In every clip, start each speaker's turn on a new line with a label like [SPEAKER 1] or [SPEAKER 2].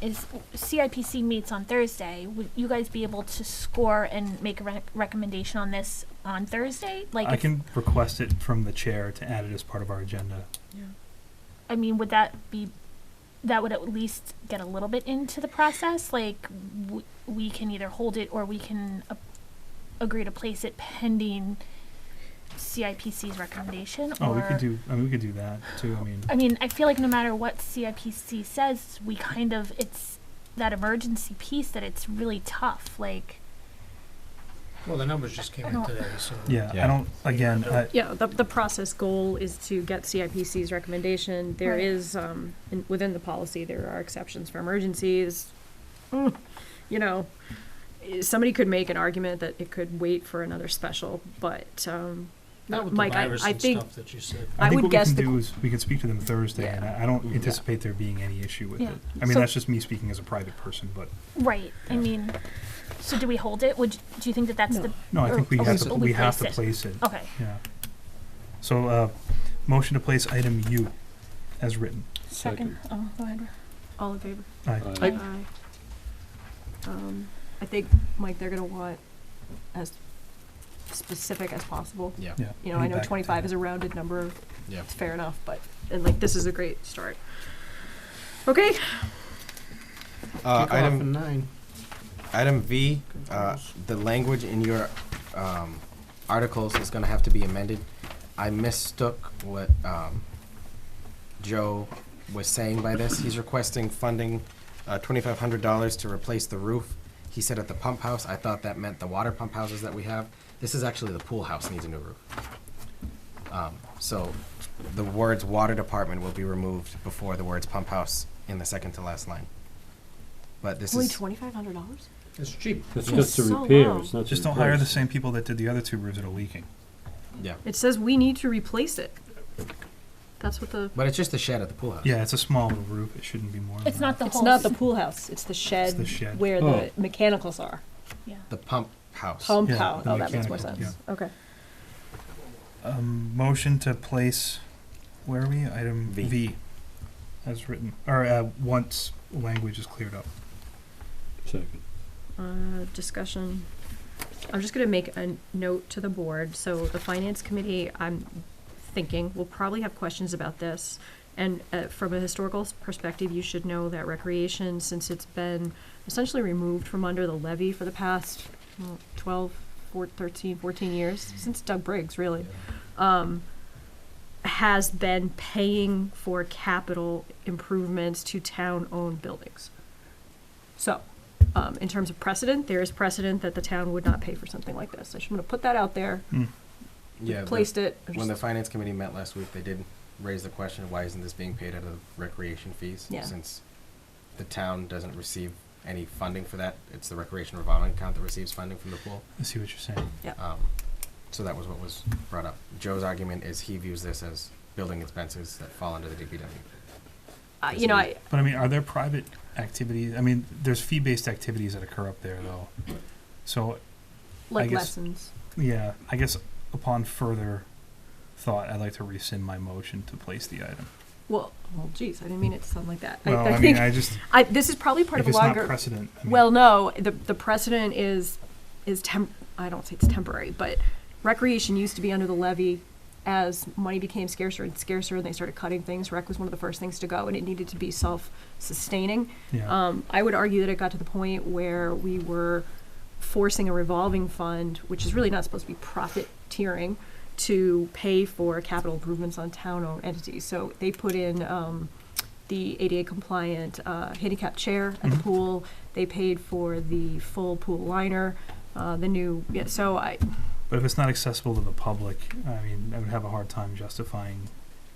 [SPEAKER 1] is CIPC meets on Thursday. Would you guys be able to score and make a re- recommendation on this on Thursday? Like,
[SPEAKER 2] I
[SPEAKER 1] if-
[SPEAKER 2] can request it from the chair to add it as part of our agenda.
[SPEAKER 1] I mean, would that be that would at least get a little bit into the process? Like, w- we can either hold it or we can a- agree to place it pending CIPC's recommendation.
[SPEAKER 2] Oh,
[SPEAKER 1] or
[SPEAKER 2] we could do. I mean, we could do that too. I mean,
[SPEAKER 1] I mean, I feel like no matter what CIPC says, we kind of it's that emergency piece that it's really tough. Like,
[SPEAKER 3] Well, the numbers just came
[SPEAKER 1] I
[SPEAKER 3] in
[SPEAKER 1] don't-
[SPEAKER 3] today, so.
[SPEAKER 2] yeah, I
[SPEAKER 4] Yeah.
[SPEAKER 2] don't. Again, I,
[SPEAKER 5] Yeah, the, the process goal is to get CIPC's recommendation. There
[SPEAKER 1] Right.
[SPEAKER 5] is, um, in, within the policy, there are exceptions for emergencies. Mm, You know, eh, somebody could make an argument that it could wait for another special, but, um,
[SPEAKER 3] Not with the
[SPEAKER 5] Mike, I,
[SPEAKER 3] virus
[SPEAKER 5] I
[SPEAKER 3] and
[SPEAKER 5] think,
[SPEAKER 3] stuff that you said.
[SPEAKER 2] I
[SPEAKER 5] I
[SPEAKER 2] think
[SPEAKER 5] would
[SPEAKER 2] what
[SPEAKER 5] guess
[SPEAKER 2] we
[SPEAKER 5] the
[SPEAKER 2] can do
[SPEAKER 5] qu-
[SPEAKER 2] is we can speak to them Thursday, and I, I don't
[SPEAKER 4] Yeah.
[SPEAKER 2] anticipate there being any issue with
[SPEAKER 1] Yeah.
[SPEAKER 2] it. I mean,
[SPEAKER 5] So-
[SPEAKER 2] that's just me speaking as a private person, but
[SPEAKER 1] right? I
[SPEAKER 2] Yeah.
[SPEAKER 1] mean, so do we hold it? Would y- do you think that that's the
[SPEAKER 2] no, I
[SPEAKER 1] Or-
[SPEAKER 2] think we
[SPEAKER 1] or
[SPEAKER 2] have
[SPEAKER 1] we
[SPEAKER 2] to
[SPEAKER 1] pl-
[SPEAKER 2] we
[SPEAKER 1] we
[SPEAKER 2] have to
[SPEAKER 1] place it.
[SPEAKER 2] place it.
[SPEAKER 1] okay?
[SPEAKER 2] Yeah. So, uh, motion to place item U as written.
[SPEAKER 1] Second. Oh, go ahead.
[SPEAKER 5] all in favor?
[SPEAKER 2] Aye.
[SPEAKER 4] Aye.
[SPEAKER 5] Aye. Um, I think, Mike, they're gonna want as specific as possible.
[SPEAKER 4] Yeah.
[SPEAKER 2] Yeah.
[SPEAKER 5] You know, I know
[SPEAKER 2] feedback.
[SPEAKER 5] twenty-five is a rounded number,
[SPEAKER 4] Yeah.
[SPEAKER 5] it's fair enough, but, and like, this is a great start. Okay,
[SPEAKER 4] Uh,
[SPEAKER 3] Kick off
[SPEAKER 4] item
[SPEAKER 3] at nine.
[SPEAKER 4] item V. Uh, the language in your um, articles is going to have to be amended. I mistook what um, Joe was saying by this. He's requesting funding uh, $2,500 to replace the roof. He said at the pump house. I thought that meant the water pump houses that we have. This is actually the pool house needs a new roof. Um, so the words water department will be removed before the words pump house in the second to last line. But this
[SPEAKER 5] only
[SPEAKER 4] is
[SPEAKER 5] twenty-five hundred dollars?
[SPEAKER 3] It's cheap.
[SPEAKER 6] That's
[SPEAKER 5] It's
[SPEAKER 6] just to
[SPEAKER 5] so
[SPEAKER 6] repair,
[SPEAKER 5] low.
[SPEAKER 6] it's not to
[SPEAKER 2] Just don't hire the
[SPEAKER 6] replace.
[SPEAKER 2] same people that did the other two roofs that are leaking.
[SPEAKER 4] yeah.
[SPEAKER 5] It says we need to replace it. That's what the.
[SPEAKER 4] But it's just a shed at the pool house.
[SPEAKER 2] Yeah, it's a small little roof. It shouldn't be more. than
[SPEAKER 1] It's not
[SPEAKER 2] that.
[SPEAKER 1] the
[SPEAKER 5] It's
[SPEAKER 1] whole.
[SPEAKER 5] not
[SPEAKER 1] s-
[SPEAKER 5] the pool house, it's the shed.
[SPEAKER 2] the shed.
[SPEAKER 5] Where
[SPEAKER 6] Oh.
[SPEAKER 5] the mechanicals are.
[SPEAKER 1] yeah.
[SPEAKER 4] The pump house.
[SPEAKER 5] Pump
[SPEAKER 2] Yeah,
[SPEAKER 5] house,
[SPEAKER 2] the
[SPEAKER 5] oh, that makes more
[SPEAKER 2] mechanical,
[SPEAKER 5] sense. Okay.
[SPEAKER 2] Um, motion to place. Where are we? Item
[SPEAKER 4] V.
[SPEAKER 2] V, as written, or uh, once language is cleared up.
[SPEAKER 6] Second.
[SPEAKER 5] Uh, discussion. I'm just gonna make a note to the board, so the finance committee, I'm thinking, will probably have questions about this. And, uh, from a historical s- perspective, you should know that recreation, since it's been essentially removed from under the levy for the past mm, twelve, four, thirteen, fourteen years, since Doug Briggs, really. Um, has been paying for capital improvements to town-owned buildings. So, um, in terms of precedent, there is precedent that the town would not pay for something like this. I just want to put that out there.
[SPEAKER 4] Yeah. the-
[SPEAKER 5] Placed it. I'm
[SPEAKER 4] when the
[SPEAKER 5] just-
[SPEAKER 4] finance committee met last week, they did raise the question, why isn't this being paid out of recreation fees?
[SPEAKER 5] Yeah.
[SPEAKER 4] Since the town doesn't receive any funding for that, it's the recreation revolving account that receives funding from the pool.
[SPEAKER 2] I see what you're saying.
[SPEAKER 4] Um, so that was what was brought up. Joe's argument is he views this as building expenses that fall under the DPW.
[SPEAKER 5] uh, you know, I,
[SPEAKER 2] But I mean, are there private activities? I mean, there's fee-based activities that occur up there, though. So
[SPEAKER 5] like
[SPEAKER 2] guess-
[SPEAKER 5] lessons.
[SPEAKER 2] yeah, I guess upon further thought, I'd like to rescind my motion to place the item.
[SPEAKER 5] Well, well, geez, I didn't mean it to sound like that. I,
[SPEAKER 2] Well,
[SPEAKER 5] I
[SPEAKER 2] I mean,
[SPEAKER 5] think
[SPEAKER 2] I just
[SPEAKER 5] I, this is probably part
[SPEAKER 2] if
[SPEAKER 5] of a
[SPEAKER 2] it's
[SPEAKER 5] longer.
[SPEAKER 2] not precedent. I mean,
[SPEAKER 5] Well, no, the, the precedent is, is temp, I don't say it's temporary, but recreation used to be under the levy. As money became scarcer and scarcer and they started cutting things, rec was one of the first things to go and it needed to be self-sustaining.
[SPEAKER 2] yeah,
[SPEAKER 5] Um, I would argue that it got to the point where we were forcing a revolving fund, which is really not supposed to be profiteering, to pay for capital improvements on town-owned entities. So they put in um, the ADA compliant uh, handicap chair at the
[SPEAKER 2] Mhm.
[SPEAKER 5] pool. They paid for the full pool liner, uh, the new. Yeah, so I,
[SPEAKER 2] but if it's not accessible to the public, I mean, I would have a hard time justifying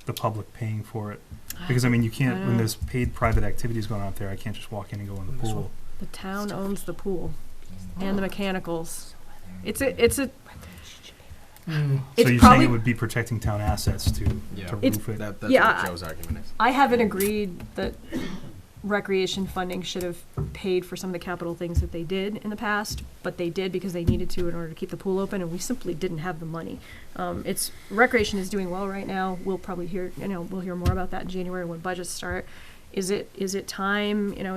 [SPEAKER 2] the public paying for it because I mean, you can't when
[SPEAKER 5] know.
[SPEAKER 2] there's paid private activities going on out there. I can't just walk in and go in the
[SPEAKER 3] This
[SPEAKER 2] pool.
[SPEAKER 3] one.
[SPEAKER 5] the town owns the pool and the mechanicals. It's a it's a
[SPEAKER 2] so
[SPEAKER 5] it's
[SPEAKER 2] you're
[SPEAKER 5] probably
[SPEAKER 2] saying it would be protecting town assets to
[SPEAKER 4] Yeah.
[SPEAKER 2] to
[SPEAKER 5] It's-
[SPEAKER 2] roof it.
[SPEAKER 4] That, that's
[SPEAKER 5] Yeah,
[SPEAKER 4] what
[SPEAKER 5] I-
[SPEAKER 4] Joe's argument is.
[SPEAKER 5] I haven't agreed that recreation funding should have paid for some of the capital things that they did in the past, but they did because they needed to in order to keep the pool open, and we simply didn't have the money. Um, it's, recreation is doing well right now, we'll probably hear, you know, we'll hear more about that in January when budgets start. Is it, is it time, you know,